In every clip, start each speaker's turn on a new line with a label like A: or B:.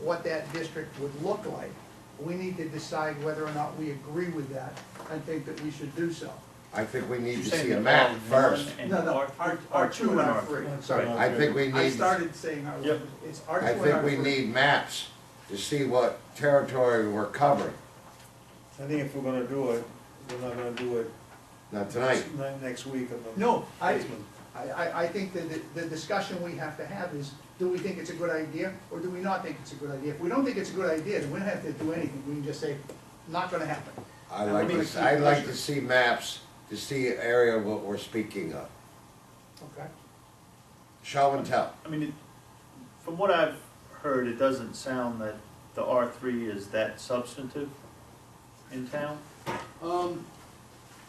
A: what that district would look like. We need to decide whether or not we agree with that and think that we should do so.
B: I think we need to
C: Saying
B: see a
C: that
B: map
C: R1
B: first.
C: and
A: No, no,
C: R-
A: R-
C: R2
A: R2 and
C: and
A: R3.
C: R3.
B: Sorry, I think we
A: I
B: need,
A: started saying R one,
C: Yep.
A: it's R two
B: I
A: and
B: think we
A: R3.
B: need maps to see what territory we're covering.
D: I think if we're gonna do it, we're not gonna do it
B: Not tonight.
D: ne- next week or the.
A: No, I,
D: next month.
A: I- I, I think that the- the discussion we have to have is, do we think it's a good idea, or do we not think it's a good idea? If we don't think it's a good idea, then we don't have to do anything, we can just say, not gonna happen.
B: I
A: And
B: like
A: we need
B: to,
A: to
B: I
A: keep
B: like to
A: pushing.
B: see maps to see area of what we're speaking of.
A: Okay.
B: Show and tell.
C: I mean, it, from what I've heard, it doesn't sound that the R three is that substantive in town.
E: Um,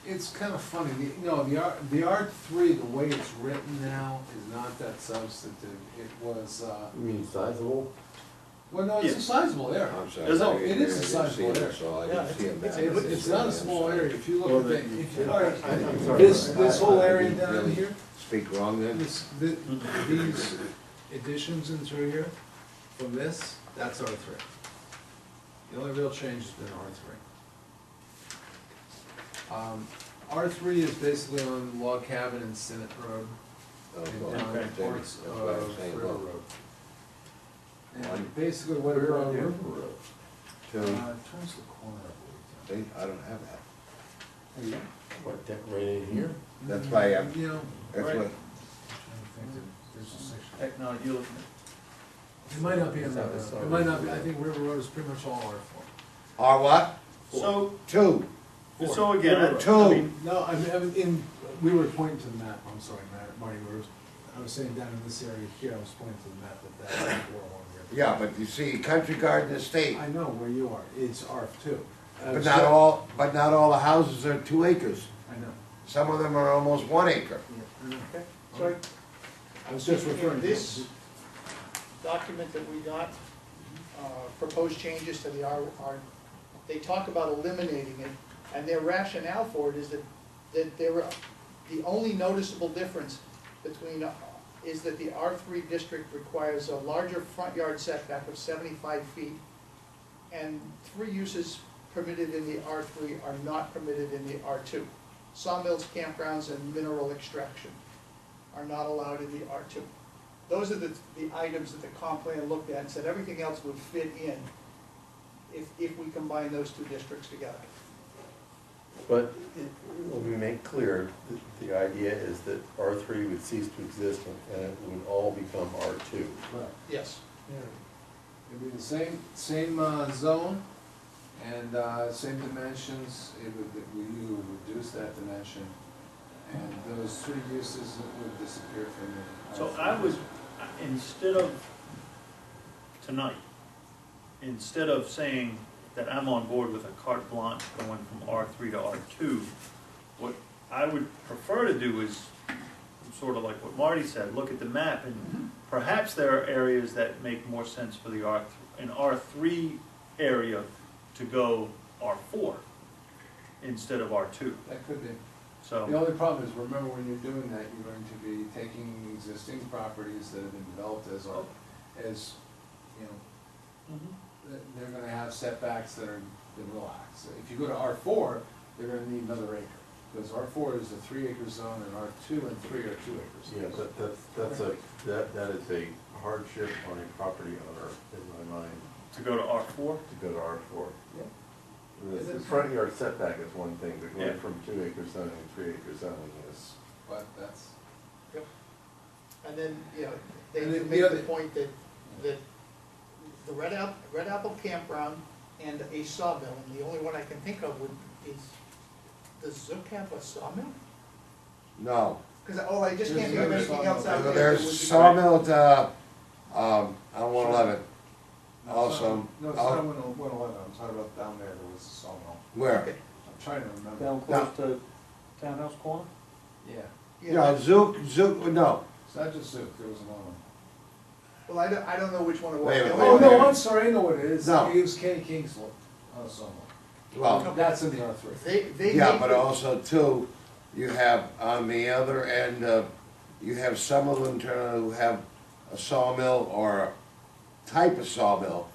E: it's kind of funny, the, you know, the R, the R three, the way it's written now is not that substantive, it was, uh,
F: You mean sizable?
E: well, no, it's a
C: Yes.
E: sizable area.
B: I'm sorry.
C: There's no-
B: I
E: it
B: didn't
E: is a
B: see
E: sizable
B: it,
E: area.
B: so I
E: Yeah,
B: didn't see a
E: It's,
B: map. uh,
E: it's- it's not a small area, if you
C: Well,
E: look at
C: then
E: the, if
F: you-
E: you, all right,
F: I- I'm sorry,
E: this,
F: but
E: this
F: I-
E: whole
F: I
E: area
B: didn't
E: down
B: really-
E: here,
B: Speak wrong then?
E: this, thi- these additions in through here, from this, that's R three. The only real change has been R three. Um, R three is basically on Log Cabin and Senate Road,
B: Oh, well,
E: and
B: okay.
E: on parts
B: That's what I'm
E: of
B: saying,
E: River
B: well,
E: Road.
B: One.
E: And basically what it
F: on
E: did-
F: River Road.
B: Two,
E: turns the corner, I
B: they, I don't have that.
F: What, that right in here?
B: That's
E: Mm-hmm.
B: why I'm,
E: You know,
B: that's
C: Right.
B: what,
C: Technology, you're looking at.
E: it might not be on that, road. it might not be, I think River Road is pretty much all R four.
B: R what?
C: So,
B: Two.
C: so again, I- I
B: Two.
C: mean,
E: No, I mean, I mean, in, we were pointing to the map, I'm sorry, Mar- Marty, we were, I was saying down in this area here, I was pointing to the map that that's four one here.
B: Yeah, but you see, Country Garden Estate,
E: I know where you are, it's R two.
B: but not all, but not all the houses are two acres.
E: I know,
B: Some of them are almost one acre.
E: I know,
A: Okay, so
E: I was just
A: In- in
E: referring to.
A: this- document that we got, uh, proposed changes to the R, R, they talk about eliminating it, and their rationale for it is that, that there, are- the only noticeable difference between, uh, is that the R three district requires a larger front yard setback of seventy-five feet, and three uses permitted in the R three are not permitted in the R two. Sawmills, campgrounds, and mineral extraction are not allowed in the R two. Those are the, the items that the comp plan looked at and said everything else would fit in if, if we combine those two districts together.
F: But it- let me make clear, th- the idea is that R three would cease to exist and it would all become R two.
E: Right.
A: Yes.
E: It'd be the same, same, uh, zone and, uh, same dimensions, it would, that we knew would reduce that dimension. And those three uses would disappear from the.
C: so I would, instead of tonight, instead of saying that I'm on board with a carte blanche going from R three to R two, what I would prefer to do is, sort of like what Marty said, look at the map and perhaps there are areas that make more sense for the R, an R three area to go R four instead of R two,
E: That could be.
C: so.
E: The only problem is, remember, when you're doing that, you're going to be taking existing properties that have been developed as, our- as, you know,
C: Mhm.
E: th- they're gonna have setbacks that are, that relax. If you go to R four, they're gonna need another acre, because R four is a three acre zone, and R two and three are two acres.
F: Yeah, but that's, that's a, that, that is a hardship on a property owner in my mind,
C: To go to R four?
F: to go to R four.
E: Yeah.
F: The the front yard setback is one thing, but
C: Yeah.
F: going from two acre zoning to three acre zoning is.
E: But that's,
A: And then, you know, they
E: And
A: do
E: then the
A: make the
E: other-
A: point that, that the Red Apple, Red Apple campground and a sawmill, and the only one I can think of would, is, does Zook have a sawmill?
B: No,
A: Because, oh, I just can't think of
E: There's
A: anything
E: another
A: else out
E: sawmill.
A: there. that would
B: there's
A: be-
B: sawmill, at, uh, um, on one eleven.
E: no, it's
B: Also,
E: not, no, it's
B: I'll-
E: not one eleven, I'm talking about down there, there was a sawmill.
B: Where?
A: Okay,
E: I'm trying to remember.
C: Down close to Townhouse Corner?
E: Yeah,
A: yeah.
B: No, Zook, Zook, no.
E: it's not just Zook, there was another one.
A: Well, I don't, I don't know which one it was.
B: Wait a
A: The
B: minute,
A: only
B: wait
E: Oh,
B: a
A: one-
E: no,
B: minute.
E: I'm sorry, I know what it is.
B: No.
E: It was Kenny Kingsley, uh, sawmill.
B: Well,
E: That's in the R three.
A: They, they.
B: yeah,
A: make
B: but
A: the-
B: also too, you have on the other end, uh, you have some of them turn- who have a sawmill or a type of sawmill